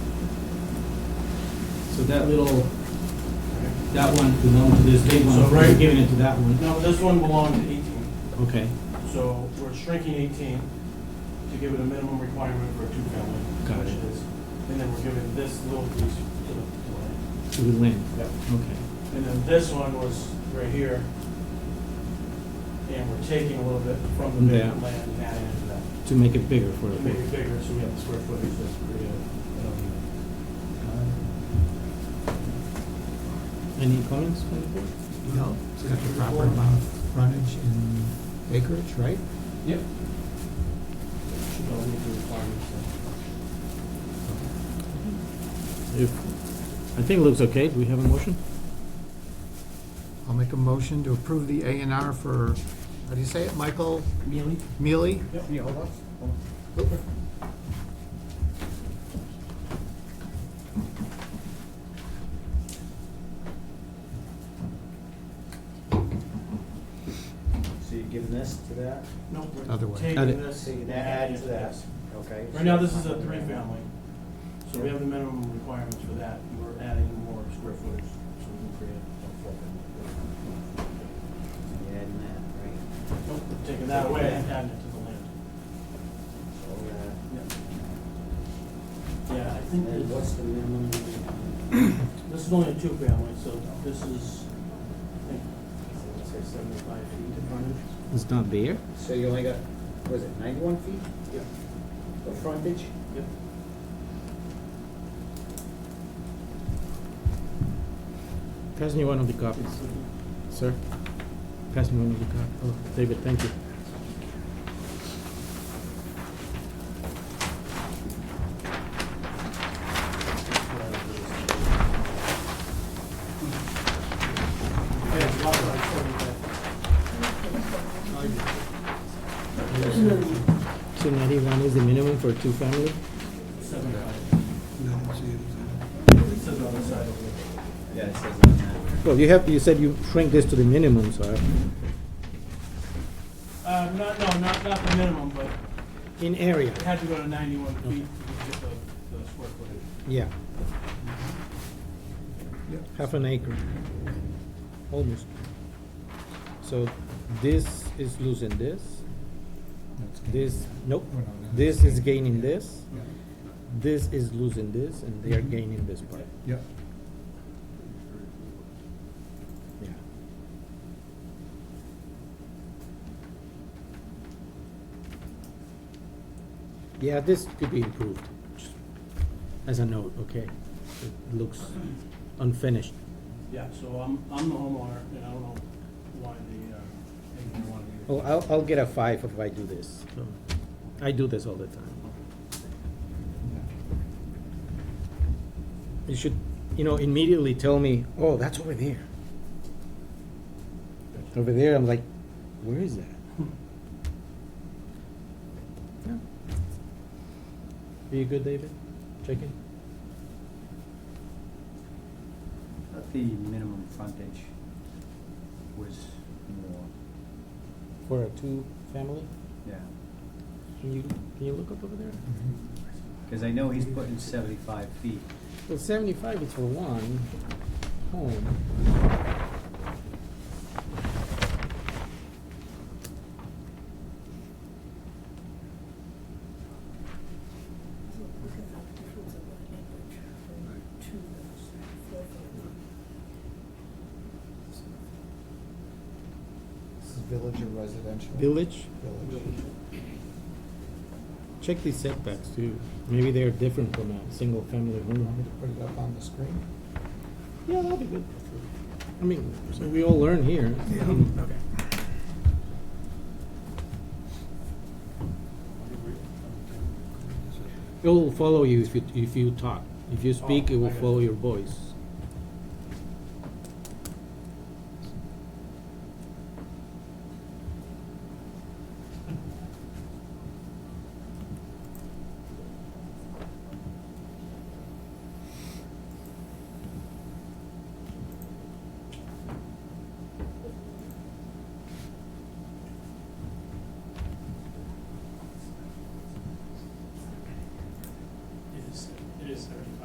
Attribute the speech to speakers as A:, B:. A: So that little, that one belonged to this big one,
B: So
A: we're
B: right-
A: giving it to that one.
B: No, this one belonged to 18,
A: Okay,
B: so we're shrinking 18 to give it a minimum requirement for a two-family.
A: Got
B: which
A: it.
B: is- And then we're giving this little piece to the, to the-
A: to the land,
B: Yep.
A: okay.
B: And then this one was right here. And we're taking a little bit from the
A: Yeah.
B: bigger land and adding it to that.
A: To make it bigger for the
B: To make it bigger, so we have the square footage that's created. Um,
A: Any comments? by the board?
C: No, it's got the proper amount of frontage and acreage, right?
B: Yep. Should all meet the requirements.
A: If, I think it looks okay, do we have a motion?
C: I'll make a motion to approve the A and R for, how do you say it, Michael
B: Mealy?
C: Mealy?
B: Yep.
D: So you're giving this to that?
B: No,
C: Other
B: we're
C: way.
B: taking
A: Add it.
B: this.
D: So you
B: and
D: can add
B: adding
D: to that, okay?
B: Right now, this is a three-family, so we have the minimum requirements for that, we're adding more square footage, so we can create a four-family.
D: You're adding that, right?
B: Nope, we're Taking that away and adding it to the land.
D: So, uh,
B: Yeah, I
D: and
B: think
D: then what's
B: this,
D: the minimum?
B: this is only a two-family, so this is, I think, let's say seventy-five feet in frontage.
A: It's not there.
D: So you only got, was it ninety-one feet
B: Yep.
D: of frontage?
B: Yep.
A: Pass me one of the copies, sir. Pass me one of the copies. Oh, David, thank you.
B: Yeah, it's about like 75.
A: So ninety-one is the minimum for two family?
B: 75. It says on the side over there.
D: Yeah, it says on that.
A: Well, you have, you said you shrink this to the minimum, so
B: Uh, not, no, not, not the minimum, but
A: in area,
B: it had to go to ninety-one feet to get the, the square footage.
A: yeah. Half an acre, almost. So this is losing this, this, nope,
C: We're not gonna-
A: this is gaining this,
C: Yeah. Mm-hmm.
A: this is losing this, and they are gaining this part,
C: Yep.
A: yeah. Yeah, this could be improved, just as a note, okay? It looks unfinished.
B: Yeah, so I'm, I'm the homeowner, and I don't know why the, uh, anyone wanted to.
A: Well, I'll, I'll get a five if I do this. So, I do this all the time. You should, you know, immediately tell me, oh, that's over there. Over there, I'm like, where is that? Yeah. Are you good, David? Checking?
D: But the minimum frontage was more,
A: For a two-family?
D: yeah.
A: Can you, can you look up over there?
D: Because I know he's putting seventy-five feet.
A: Well, seventy-five is for one home.
E: Look at the difference of that language from two, four,
C: This is village or residential?
A: Village?
C: Village.
A: Check these setbacks too. Maybe they're different from a single-family home.
C: Put it up on the screen?
A: Yeah, that'll be good. I mean, so we all learn here. Um, Okay. It will follow you if you, if you talk. If you speak, it
B: I
A: will
B: got
A: follow
B: you.
A: your voice.